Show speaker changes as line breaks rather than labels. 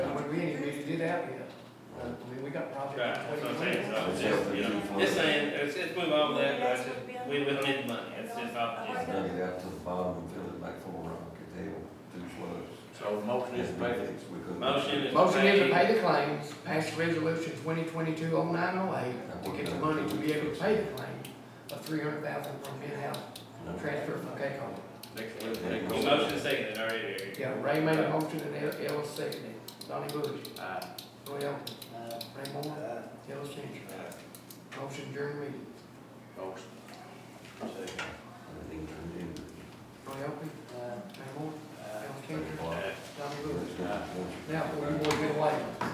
out yet. Uh, I mean, we got
Right,
projects.
that's what I'm
waiting
saying,
on.
so, it's just, you know, just saying, let's, let's move on with that, but it's just- we, we don't need the money, it's just, off- just-
Dug it out to the bottom and filled it back full of rock and they will do floods.
So the motion is made.
We couldn't-
motion is.
Motion is to pay the claims, pass resolution twenty twenty-two oh nine oh eight, to get the money to be able to pay the claim of three hundred thousand from mid-house
No.
transfer from K-Co.
Next one, next
Your
one.
motion is seconded already, Eric.
Yeah, Ray made a motion and El, El seconded. it. Donnie Bush,
Aye.
Roy Elphie, Ray Moore, El Changer.
Aye.
Motion during meeting.
Motion. Second.
Everything turned in.
Roy Elphie, Ray Moore, El Changer,
Well,
Eh,
Donnie Bush.
there's not much.
Now, we want to get away.